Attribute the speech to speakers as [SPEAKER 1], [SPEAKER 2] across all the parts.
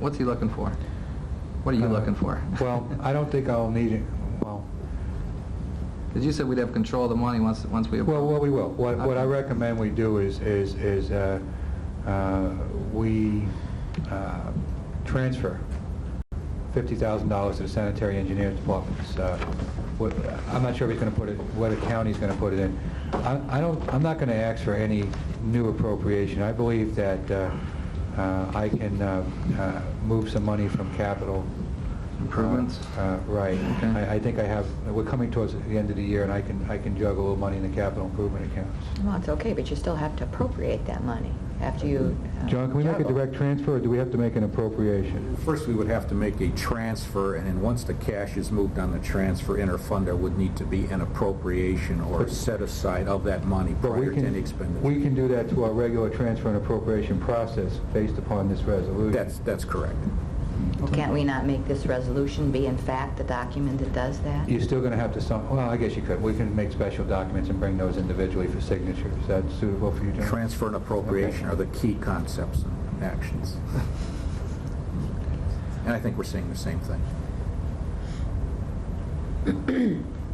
[SPEAKER 1] What's he looking for? What are you
[SPEAKER 2] Uh,
[SPEAKER 1] looking for?
[SPEAKER 2] Well, I don't think I'll need it, well,
[SPEAKER 1] Because you said we'd have control of the money once, once we...
[SPEAKER 2] well, well, we will. What what I
[SPEAKER 1] Okay.
[SPEAKER 2] recommend we do is, is, is uh, uh, we uh, transfer $50,000 to the sanitary engineer's department. It's, uh, what- I'm not sure if he's going to put it, what the county's going to put it in. I I don't, I'm not going to ask for any new appropriation. I believe that uh, uh, I can uh, uh, move some money from capital
[SPEAKER 1] Improvements?
[SPEAKER 2] Uh, Right.
[SPEAKER 1] Okay.
[SPEAKER 2] I I think I have, we're coming towards the end of the year, and I can, I can juggle a little money in the capital improvement accounts.
[SPEAKER 3] Well, it's okay, but you still have to appropriate that money after you... uh,
[SPEAKER 2] John, can we make a
[SPEAKER 3] juggle.
[SPEAKER 2] direct transfer, or do we have to make an appropriation?
[SPEAKER 4] First, we would have to make a transfer, and then once the cash is moved on the transfer interfund, there would need to be an appropriation or set aside of that money
[SPEAKER 2] But we
[SPEAKER 4] prior to
[SPEAKER 2] can-
[SPEAKER 4] any expenditure.
[SPEAKER 2] We can do that through our regular transfer and appropriation process based upon this resolution.
[SPEAKER 4] That's, that's correct.
[SPEAKER 3] Well, Can't we not make this resolution be in fact the document that does that?
[SPEAKER 2] You're still going to have to, sign- well, I guess you could. We can make special documents and bring those individually for signature. Is that suitable for you, John?
[SPEAKER 4] Transfer and appropriation are the key concepts and actions. And I think we're seeing the same thing.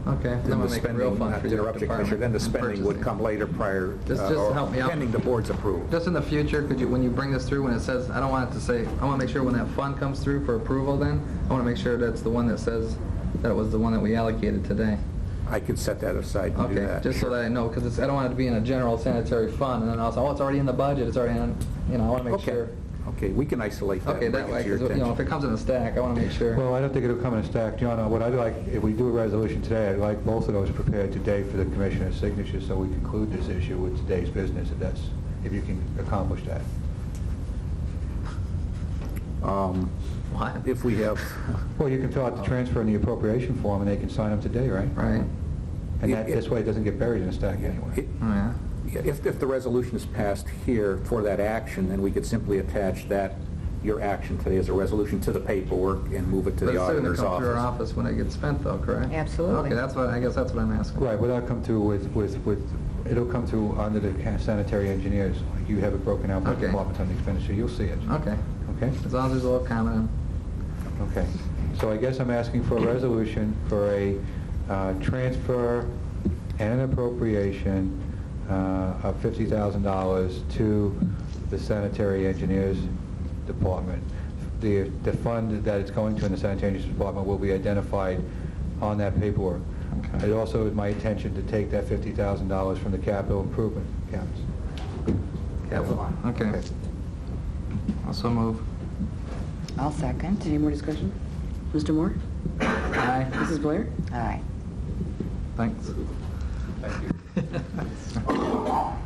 [SPEAKER 1] Okay. then
[SPEAKER 4] Then
[SPEAKER 1] we'll
[SPEAKER 4] the
[SPEAKER 1] make a real
[SPEAKER 4] spending,
[SPEAKER 1] fund
[SPEAKER 4] not
[SPEAKER 1] for
[SPEAKER 4] to
[SPEAKER 1] your
[SPEAKER 4] interrupt you,
[SPEAKER 1] department
[SPEAKER 4] Commissioner, then the
[SPEAKER 1] and
[SPEAKER 4] spending would
[SPEAKER 1] purchasing.
[SPEAKER 4] come later prior,
[SPEAKER 1] Just-
[SPEAKER 4] uh,
[SPEAKER 1] just
[SPEAKER 4] or
[SPEAKER 1] help me out.
[SPEAKER 4] pending the board's approval.
[SPEAKER 1] Just in the future, could you, when you bring this through, when it says, I don't want it to say, I want to make sure when that fund comes through for approval then, I want to make sure that's the one that says that it was the one that we allocated today.
[SPEAKER 4] I could set that aside and do
[SPEAKER 1] Okay,
[SPEAKER 4] that.
[SPEAKER 1] just so that I know, because I don't want it to be in a general sanitary fund, and then also, oh, it's already in the budget, it's already in, you know, I want to make
[SPEAKER 4] Okay.
[SPEAKER 1] sure.
[SPEAKER 4] Okay, we can isolate that
[SPEAKER 1] Okay,
[SPEAKER 4] and bring
[SPEAKER 1] that
[SPEAKER 4] it
[SPEAKER 1] way,
[SPEAKER 4] to your
[SPEAKER 1] 'cause, you
[SPEAKER 4] attention.
[SPEAKER 1] know, if it comes in a stack, I want to make sure.
[SPEAKER 2] Well, I don't think it'll come in a stack, John. Uh, What I'd like, if we do a resolution today, I'd like both of those prepared today for the commissioner's signature, so we conclude this issue with today's business, if that's, if you can accomplish that.
[SPEAKER 4] Um,
[SPEAKER 1] What?
[SPEAKER 4] If we have,
[SPEAKER 2] Well, you can fill out the transfer and the appropriation form, and they can sign them today, right?
[SPEAKER 1] Right?
[SPEAKER 2] And that, this way, it doesn't get buried in a stack anyway.
[SPEAKER 4] it-
[SPEAKER 1] Oh, yeah.
[SPEAKER 4] if, if the resolution is passed here for that action, then we could simply attach that, your action today as a resolution to the paperwork and move it to
[SPEAKER 1] But
[SPEAKER 4] the
[SPEAKER 1] it's still going
[SPEAKER 4] auditor's
[SPEAKER 1] to come through our
[SPEAKER 4] office.
[SPEAKER 1] office when it gets spent though, correct?
[SPEAKER 3] Absolutely.
[SPEAKER 1] Okay, that's what, I guess that's what I'm asking.
[SPEAKER 2] Right, well, that'll come through with, with, with, it'll come through under the ca- sanitary engineers. Like, You have it broken out by
[SPEAKER 1] Okay.
[SPEAKER 2] departments on the expenditure, you'll see it.
[SPEAKER 1] Okay,
[SPEAKER 2] Okay?
[SPEAKER 1] as long as there's a little comment.
[SPEAKER 2] Okay, so I guess I'm asking for a resolution for a uh, transfer and an appropriation uh, of $50,000 to the sanitary engineers department. The the fund that it's going to in the sanitary engineers department will be identified on that paperwork.
[SPEAKER 1] Okay.
[SPEAKER 2] It also is my intention to take that $50,000 from the capital improvement accounts.
[SPEAKER 1] Capital. Okay, also move.
[SPEAKER 3] I'll second.
[SPEAKER 5] Any more discussion? Mr. Moore?
[SPEAKER 1] Aye,
[SPEAKER 5] Mrs. Blair?
[SPEAKER 3] Aye.
[SPEAKER 1] thanks.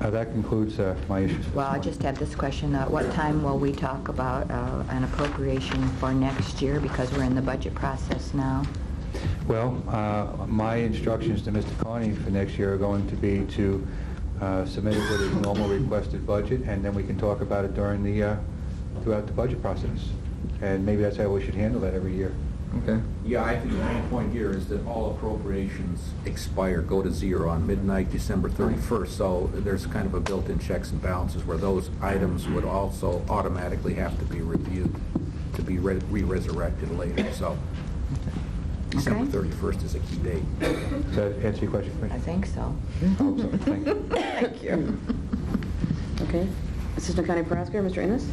[SPEAKER 2] Uh, That concludes uh, my issues.
[SPEAKER 3] Well, I just have this question, uh, what time will we talk about uh, an appropriation for next year, because we're in the budget process now?
[SPEAKER 2] Well, uh, my instructions to Mr. Carney for next year are going to be to uh, submit it with his normal requested budget, and then we can talk about it during the, uh, throughout the budget process. And maybe that's how we should handle that every year.
[SPEAKER 1] Okay,
[SPEAKER 4] Yeah, I think the main point here is that all appropriations expire, go to zero on midnight, December 31st. So there's kind of a built-in checks and balances where those items would also automatically have to be reviewed to be re- re-resurrected later. So December
[SPEAKER 3] Okay.
[SPEAKER 4] 31st is a key date.
[SPEAKER 2] Does that answer your question,
[SPEAKER 3] I
[SPEAKER 2] Commissioner?
[SPEAKER 3] think so.
[SPEAKER 2] I hope so. Thank you.
[SPEAKER 3] Thank you.
[SPEAKER 5] Okay. Assistant County Prosecutor, Mr. Ennis?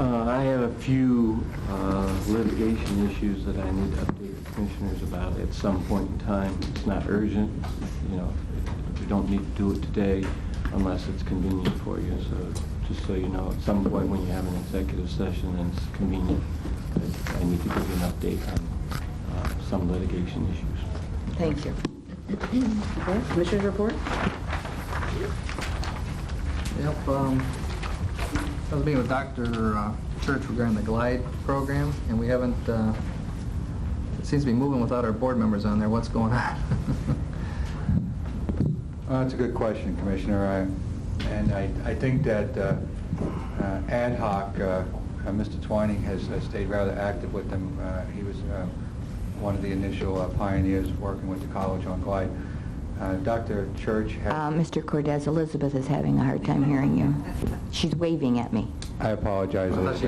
[SPEAKER 6] Uh, I have a few uh, litigation issues that I need to update the commissioners about at some point in time. It's not urgent, you know, we don't need to do it today unless it's convenient for you, so just so you know, at some point when you have an executive session and it's convenient, but I need to give you an update on uh, some litigation issues.
[SPEAKER 3] Thank you.
[SPEAKER 5] Okay. Commissioners report?
[SPEAKER 1] yep, um, I was meeting with Dr. uh, Church regarding the GLIDE program, and we haven't, uh, it seems to be moving without our board members on there, what's going on?
[SPEAKER 2] Well, That's a good question, Commissioner. I- And I I think that uh, uh, ad hoc, uh, uh, Mr. Twining has has stayed rather active with them. Uh, He was uh, one of the initial uh, pioneers working with the college on Glide. Uh, Dr. Church, had-
[SPEAKER 3] Uh, Mr. Cordes, Elizabeth is having a hard time hearing you. She's waving at me.
[SPEAKER 2] I
[SPEAKER 1] I thought
[SPEAKER 2] apologize.
[SPEAKER 1] she
[SPEAKER 2] Elizabeth.